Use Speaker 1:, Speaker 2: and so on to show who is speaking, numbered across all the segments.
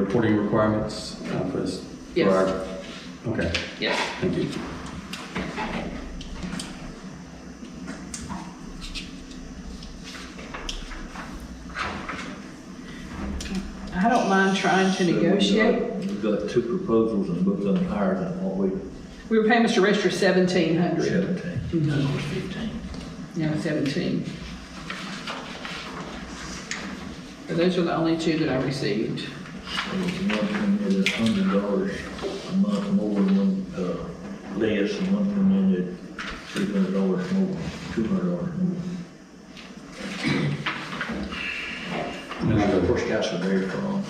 Speaker 1: reporting requirements uh, for this? for
Speaker 2: Yes.
Speaker 1: our- Okay,
Speaker 2: Yes.
Speaker 1: thank you.
Speaker 3: I don't mind trying to negotiate.
Speaker 4: We've got two proposals and both of them higher than what we,
Speaker 3: We were paying Mr. Rester seventeen hundred.
Speaker 4: seventeen,
Speaker 3: Mm-hmm.
Speaker 4: that was fifteen.
Speaker 3: No, seventeen. But those are the only two that I received.
Speaker 4: There was one coming in at hundred dollars a month more and one, uh, less, and one coming in at three hundred dollars more, two hundred dollars more.
Speaker 1: And then I
Speaker 4: The
Speaker 1: go,
Speaker 4: first guys were there for, um,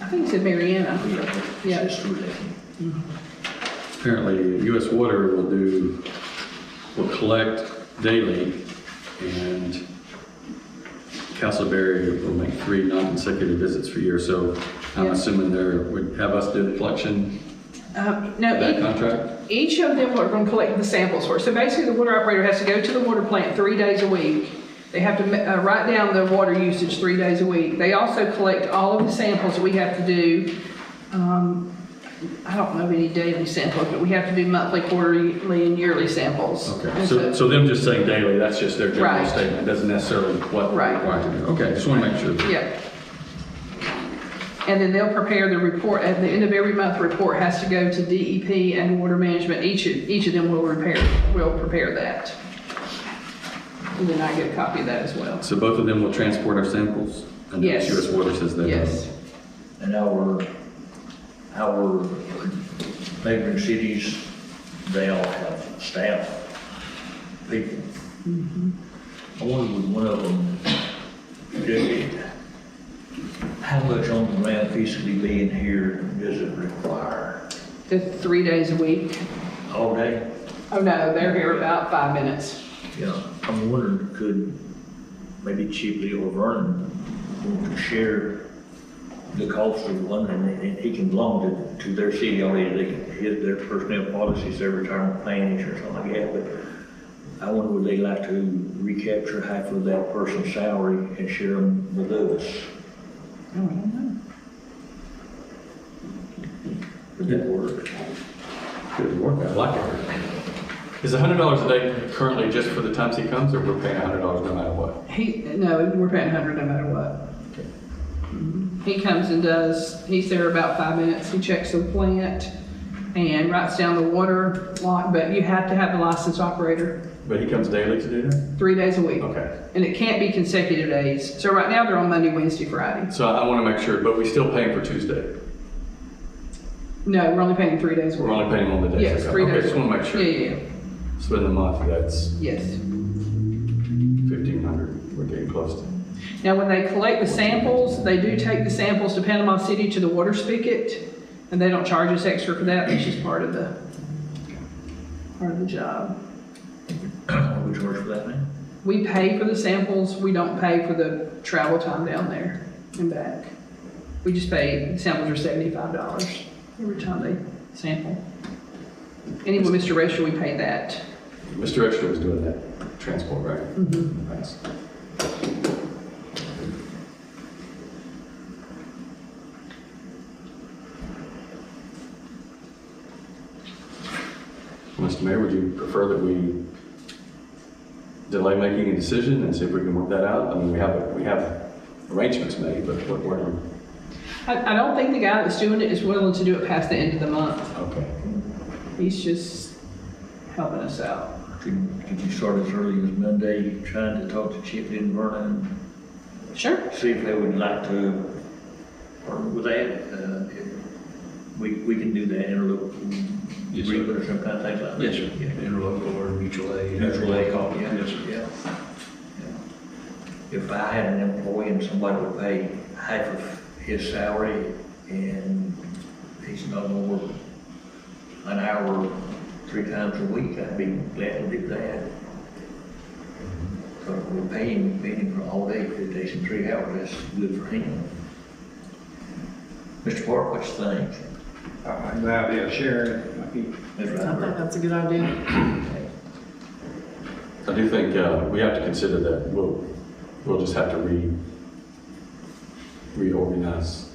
Speaker 3: I think it said Mariana.
Speaker 4: yeah,
Speaker 3: Yeah.
Speaker 4: it's through that.
Speaker 1: apparently US Water will do, will collect daily and Castleberry will make three non-consecutive visits per year. So I'm
Speaker 3: Yeah.
Speaker 1: assuming they're, would have us do the collection,
Speaker 3: Um, no,
Speaker 1: that
Speaker 3: e-
Speaker 1: contract?
Speaker 3: each of them are gonna collect the samples for us. So basically, the water operator has to go to the water plant three days a week. They have to ma- uh, write down their water usage three days a week. They also collect all of the samples that we have to do. Um, I don't know of any daily samples, but we have to do monthly, quarterly, and yearly samples.
Speaker 1: Okay,
Speaker 3: And
Speaker 1: so, so them just saying daily, that's just their general
Speaker 3: Right.
Speaker 1: statement, doesn't necessarily what we're
Speaker 3: Right.
Speaker 1: required to do. Okay, just want to make sure.
Speaker 3: Yeah. And then they'll prepare the report, at the end of every month, the report has to go to DEP and Water Management, each, of- each of them will repair, will prepare that. And then I get a copy of that as well,
Speaker 1: So both of them will transport our samples? And then
Speaker 3: Yes.
Speaker 1: US Water says they will.
Speaker 3: yes.
Speaker 4: And our, our neighboring cities, they all have staff, people. I wonder with one of them, Jimmy, how much on the ground physically being here does it require?
Speaker 3: The three days a week,
Speaker 4: All day?
Speaker 3: oh no, they're here about five minutes.
Speaker 4: Yeah, I'm wondering, could maybe Chipley or Vernon want to share the cost of one, and and he can belong to, to their city already, they can, hit their personnel policies, their retirement plans or something like that, but I wonder would they like to recapture half of that person's salary and share them with us? Would that work?
Speaker 1: Good work, I like it. Is hundred dollars a day currently just for the times he comes, or we're paying hundred dollars no matter what?
Speaker 3: He, no, we're paying hundred no matter what. Mhm. He comes and does, he's there about five minutes, he checks the plant and writes down the water lot, but you have to have a licensed operator,
Speaker 1: But he comes daily to do that?
Speaker 3: three days a week.
Speaker 1: Okay,
Speaker 3: And it can't be consecutive days. So right now, they're on Monday, Wednesday, Friday.
Speaker 1: so I want to make sure, but we still paying for Tuesday?
Speaker 3: No, we're only paying three days a
Speaker 1: We're
Speaker 3: week.
Speaker 1: only paying on the days?
Speaker 3: Yes,
Speaker 1: that come.
Speaker 3: three
Speaker 1: Okay,
Speaker 3: days.
Speaker 1: just want to make
Speaker 3: Yeah,
Speaker 1: sure.
Speaker 3: yeah, yeah.
Speaker 1: So in the month, that's
Speaker 3: yes.
Speaker 1: fifteen hundred, we're getting close to.
Speaker 3: Now, when they collect the samples, they do take the samples to Panama City to the water spigot, and they don't charge us extra for that, which is part of the, part of the job.
Speaker 4: Would you charge for that now?
Speaker 3: We pay for the samples, we don't pay for the travel time down there and back. We just pay, samples are seventy-five dollars every time they sample. Anyway, Mr. Rachel, we pay that.
Speaker 1: Mr. Extra was doing that transport, right? Nice. Mr. Mayor, would you prefer that we delay making a decision and see if we can work that out? I mean, we have, we have arrangements made, but what, what, are-
Speaker 3: I, I don't think the guy that's doing it is willing to do it past the end of the month.
Speaker 1: okay.
Speaker 3: He's just helping us out.
Speaker 4: Could, could you start as early as Monday, trying to talk to Chipley and Vernon
Speaker 3: Sure.
Speaker 4: see if they would like to, or would they, uh, if- we, we can do that interlocal
Speaker 5: Yes, sir.
Speaker 4: agreement or some kind of thing like that?
Speaker 5: Yes, sir.
Speaker 4: Yeah.
Speaker 5: Interlocal or mutual aid.
Speaker 4: Mutual aid call, yeah.
Speaker 5: Yes, sir.
Speaker 4: Yeah. Yeah. If I had an employee and somebody would pay half of his salary and he's no more an hour, three times a week, I'd be glad to do that. But we're paying, paying him for all day, three days and three hours, that's good for him. Mr. Park, what you think?
Speaker 5: Uh, Good idea, sharing, I think.
Speaker 4: Mr.
Speaker 6: I think
Speaker 4: Rappert?
Speaker 6: that's a good idea.
Speaker 1: I do think uh, we have to consider that we'll, we'll just have to re, reorganize